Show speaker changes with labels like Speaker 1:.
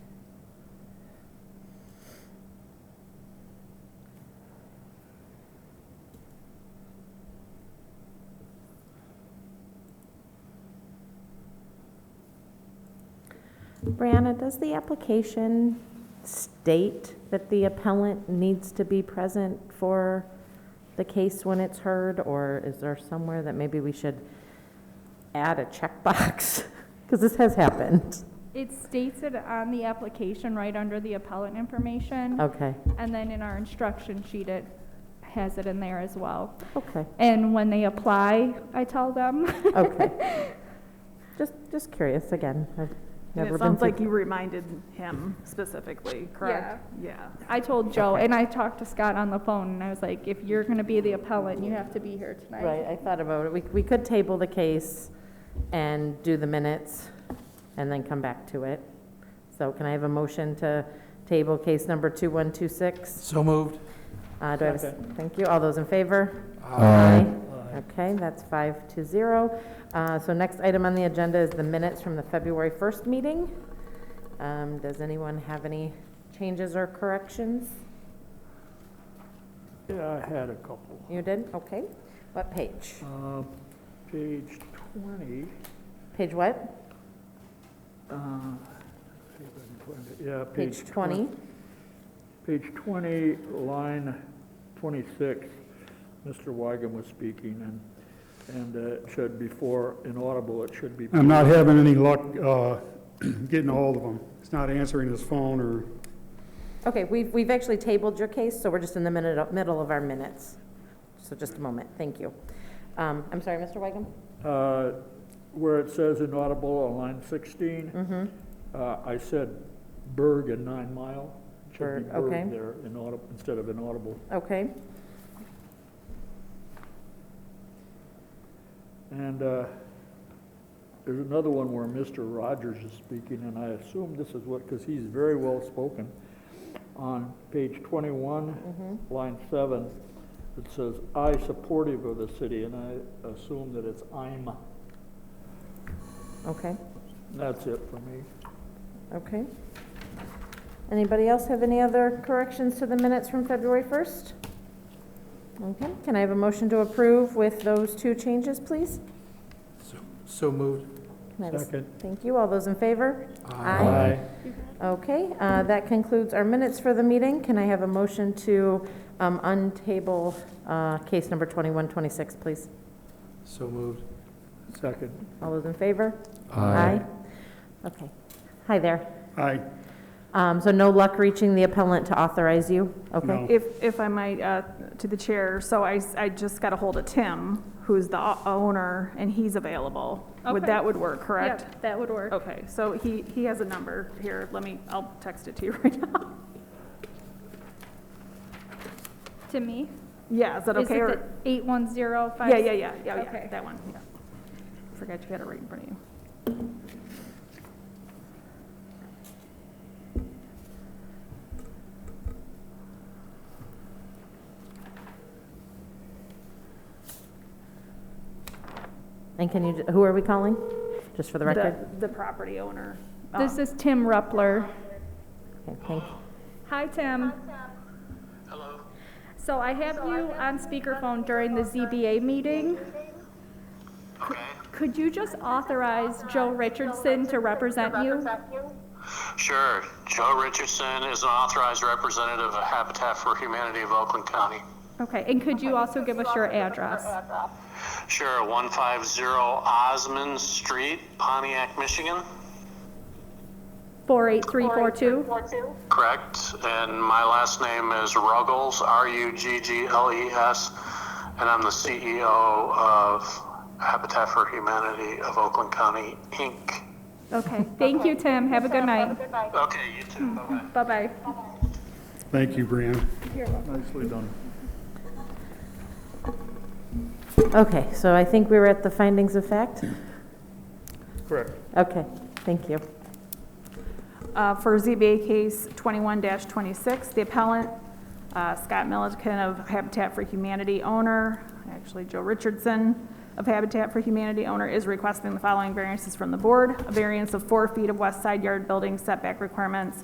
Speaker 1: Brianna, does the application state that the appellant needs to be present for the case when it's heard? Or is there somewhere that maybe we should add a checkbox? Because this has happened.
Speaker 2: It states it on the application right under the appellant information,
Speaker 1: Okay,
Speaker 2: and then in our instruction sheet, it has it in there as well.
Speaker 1: okay,
Speaker 2: And when they apply, I tell them,
Speaker 1: okay. Just, just curious again. I've
Speaker 3: And
Speaker 1: never
Speaker 3: it
Speaker 1: been
Speaker 3: sounds like
Speaker 1: to.
Speaker 3: you reminded him specifically, correct? Yeah.
Speaker 2: I told Joe,
Speaker 1: Okay.
Speaker 2: and I talked to Scott on the phone, and I was like, if you're gonna be the appellant, you have to be here tonight.
Speaker 1: Right, I thought about it. We, we could table the case and do the minutes and then come back to it. So can I have a motion to table case number 2126?
Speaker 4: So moved.
Speaker 1: Uh, Do I have, a s- thank you. All those in favor? Okay, that's five to zero. Uh, So next item on the agenda is the minutes from the February 1st meeting. Um, Does anyone have any changes or corrections?
Speaker 5: Yeah, I had a couple.
Speaker 1: You did? Okay. What page?
Speaker 5: Uh, Page 20,
Speaker 1: Page what?
Speaker 5: uh, see if I can find it, yeah.
Speaker 1: Page
Speaker 5: twen-
Speaker 1: 20?
Speaker 5: Page 20, line 26, Mr. Weigand was speaking, and, and uh, it should before inaudible, it should be.
Speaker 6: I'm not having any luck uh, getting a hold of him. He's not answering his phone or,
Speaker 1: Okay, we've, we've actually tabled your case, so we're just in the minute, middle of our minutes. So just a moment, thank you. Um, I'm sorry, Mr. Weigum?
Speaker 5: Uh, Where it says inaudible on line 16,
Speaker 1: Mm-hmm,
Speaker 5: uh, I said Berg and Nine Mile. It should be
Speaker 1: Berg, okay.
Speaker 5: Berg there, inaudible, instead of inaudible.
Speaker 1: okay.
Speaker 5: And uh, there's another one where Mr. Rogers is speaking, and I assume this is what, because he's very well-spoken. On page
Speaker 1: mm-hmm,
Speaker 5: 21, line 7, it says, "I supportive of the city," and I assume that it's "I'm."
Speaker 1: Okay,
Speaker 5: That's it for me.
Speaker 1: okay. Anybody else have any other corrections to the minutes from February 1st? Okay, can I have a motion to approve with those two changes, please?
Speaker 4: So moved.
Speaker 1: Can I have a s-
Speaker 5: Second.
Speaker 1: Thank you, all those in favor?
Speaker 4: Aye.
Speaker 1: Okay, uh, that concludes our minutes for the meeting. Can I have a motion to um, untable uh, case number 2126, please?
Speaker 4: So moved.
Speaker 5: Second.
Speaker 1: All those in favor? Okay. Hi there.
Speaker 6: I,
Speaker 1: Um, So no luck reaching the appellant to authorize you?
Speaker 6: No.
Speaker 1: Okay.
Speaker 3: If, if I might, uh, to the chair, so I, s- I just got ahold of Tim, who's the o- owner, and he's available. Would,
Speaker 2: Okay.
Speaker 3: that would work, correct? Oh.
Speaker 2: Yep, that would work.
Speaker 3: Okay, so he, he has a number here, let me, I'll text it to you right now.
Speaker 2: To me?
Speaker 3: Yeah, is that okay? or-
Speaker 2: Eight one zero five?
Speaker 3: Yeah, yeah, yeah, yeah, yeah,
Speaker 2: Okay.
Speaker 3: that one, yeah. Forgot you had it right in front of you.
Speaker 1: And can you, who are we calling? Just for the record?
Speaker 3: The, the property owner. um,
Speaker 2: This is Tim Ruppler.
Speaker 1: Okay, thank you.
Speaker 2: Hi, Tim. Hello. So I have you on speakerphone during the ZBA meeting. Could you just authorize Joe Richardson to represent you?
Speaker 7: Sure. Joe Richardson is an authorized representative of Habitat for Humanity of Oakland County.
Speaker 2: Okay, and could you also give us your address?
Speaker 7: Sure, 150 Osmond Street, Pontiac, Michigan.
Speaker 2: 48342?
Speaker 7: Correct. And my last name is Ruggles, R U G G L E S, and I'm the CEO of Habitat for Humanity of Oakland County, Inc.
Speaker 2: Okay, thank you, Tim. Have a good night.
Speaker 7: Okay, you too. Bye bye.
Speaker 2: Bye-bye.
Speaker 6: thank you, Brianna.
Speaker 5: Nicely done.
Speaker 1: Okay, so I think we were at the findings of fact?
Speaker 5: Correct.
Speaker 1: Okay, thank you.
Speaker 3: Uh, For ZBA case 21-26, the appellant, uh, Scott Milliken of Habitat for Humanity owner, actually Joe Richardson of Habitat for Humanity owner, is requesting the following variances from the board. A variance of four feet of west side yard building setback requirements